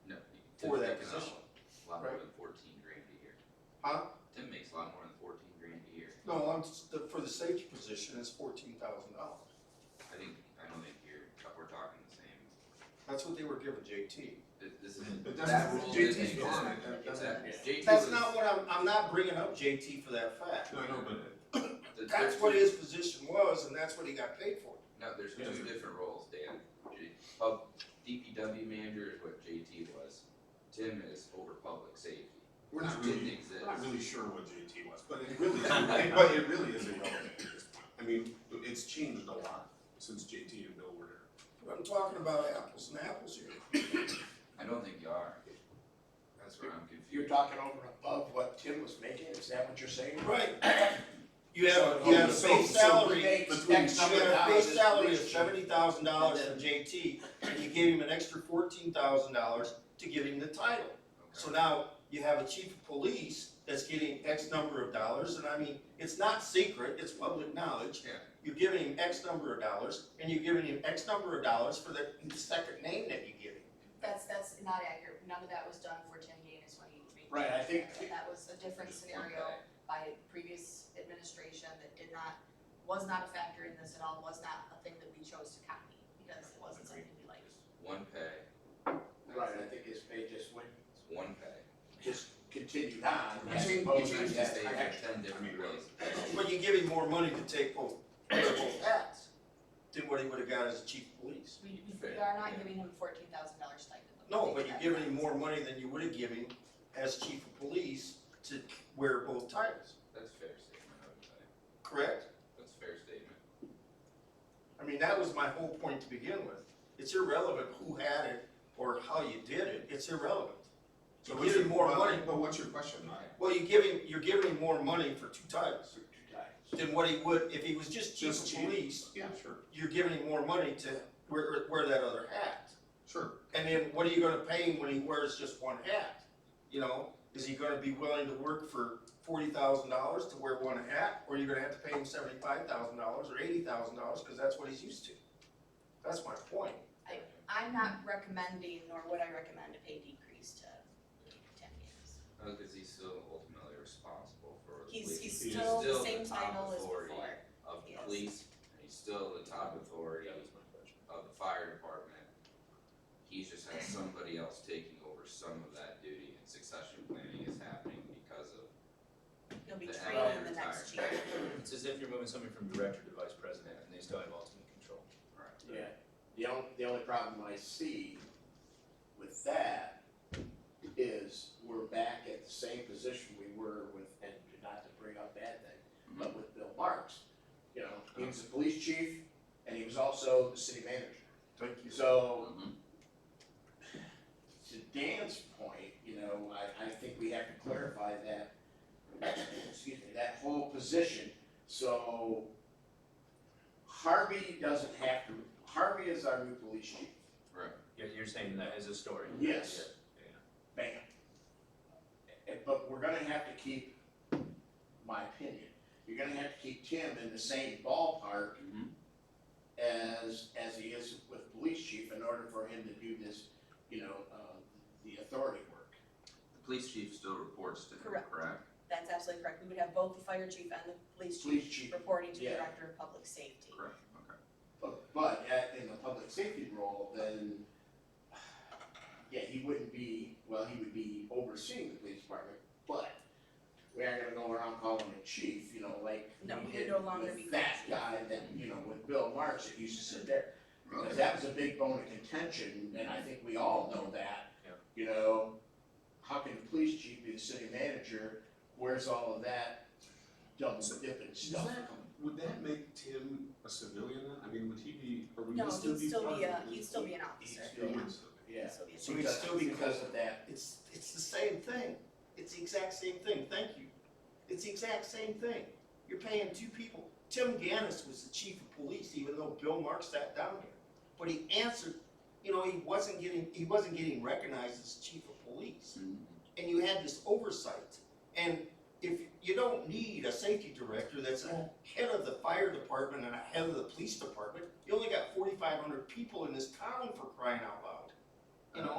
for Tim's that making a position. Lot more right? than fourteen grand a year. Huh? Tim makes a lot more than fourteen grand a year. No, I'm, the- for the safety position, it's fourteen thousand dollars. I think, I don't think you're, we're talking the same. That's what they were giving JT. Th- This isn't, But that that's, rule JT's didn't gone, exist. that, that's. Exactly. JT That's was- not what I'm, I'm not bringing up JT for that fact. No, I know, but the- That's there's what two- his position was, and that's what he got paid for. No, there's Yeah. two different roles, Dan. J- Pub, DPW manager is what JT was. Tim is over public safety. we're not It really. Didn't exist. I'm not really sure what JT was, but it really, is- but it really is irrelevant at this point. I mean, it's changed a lot since JT and Bill were there. I'm talking about apples and apples here. I don't think you are. That's where I'm confused. You're talking over and above what Tim was making, is that what you're saying? Right. You have, you So- have a so- base so salary, Makes between X you number of have a base dollars. salary of seventy thousand dollars from JT, and you gave him an extra fourteen thousand dollars to give him the title. So Okay. now you have a chief of police that's getting X number of dollars, and I mean, it's not secret, it's public knowledge. Yeah. You're giving him X number of dollars, and you're giving him X number of dollars for the second name that you give him. That's, that's not accurate, none of that was done for Tim Gaines when he made. Right, I think- That was a different Just one scenario guy. by previous administration that did not, was not a factor in this at all, was not a thing that we chose to copy, because it wasn't something we liked. One pay. Right, I think his pay just went, It's one pay. just continued on, as You opposed change the to that state extra. ten different ways. But you give him more money to take both, wear both hats than what he would have got as a chief of police. We, we- we Fair, are not yeah. giving him fourteen thousand dollar stipend. Let me No, make but you're that giving him clear. more money than you would have given him as chief of police to wear both titles, That's fair statement, I would say. correct? That's fair statement. I mean, that was my whole point to begin with. It's irrelevant who had it or how you did it, it's irrelevant. So You what's give your, him more but, money. but what's your question, Mike? Well, you give him, you're giving him more money for two titles Two times. than what he would, if he was just chief Just of chief. police, Yeah, sure, you're giving him more money to wear, wear that other hat. sure. And then what are you gonna pay him when he wears just one hat? You know, is he gonna be willing to work for forty thousand dollars to wear one hat? Or you're gonna have to pay him seventy-five thousand dollars or eighty thousand dollars, cause that's what he's used to. That's my point. I'm not recommending, nor would I recommend a pay decrease to Tim Gaines. No, cause he's still ultimately responsible for the police He's, He he's is still the still same the top title as authority. before. of the Yes. police, and he's still the top authority of the fire department. He's just had somebody else taking over some of that duty and succession planning is happening because of He'll be The trained in hourly the next year. retired. It's as if you're moving somebody from director to vice president and they still have ultimate control. Yeah, the only, the only problem I see with that is we're back at the same position we were with, and not to bring up bad thing, but with Bill Marks. You know, he was the police chief and he was also the city manager. Thank So Mhm. to Dan's point, you know, I, I think we have to clarify that, excuse me, that whole position. So Harvey doesn't have to, Harvey is our new police chief, Right, You're, you're saying that as a story? Yes. Yeah. bam. And- But we're gonna have to keep, my opinion, you're gonna have to keep Tim in the same ballpark Mhm. as, as he is with police chief in order for him to do this, you know, uh, the authority work. the police chief still reports to him, Correct. correct? That's absolutely correct. We would have both the fire chief and the police chief Police chief reporting to the Yeah. director of public safety. Correct, okay. But, but at, in the public safety role, then, yeah, he wouldn't be, well, he would be overseeing the police department, but we aren't gonna go around calling him chief, you know, like No, we he would did no longer be with that chief. guy that, you know, with Bill Marks that used to sit there. Because that was a big bone of contention, and I think we all know that. Yeah. You know, how can the police chief be the city manager? Where's all of that double dipping stuff? Would that make Tim a civilian then? I mean, would he be, or would No, he still he'd be still part be of the a, police? he'd still be an He'd officer. still be- yeah. Yeah. He'd still be a- So he'd still be- Because of that It's, it's the same thing. It's the exact same thing, thank you. It's the exact same thing. You're paying two people. Tim Gannis was the chief of police, even though Bill Mark sat down here. But he answered, you know, he wasn't getting, he wasn't getting recognized as chief of police. And you had this oversight. And if, you don't need a safety director that's a head of the fire department and a head of the police department. You only got forty-five hundred people in this town for crying out loud, you know?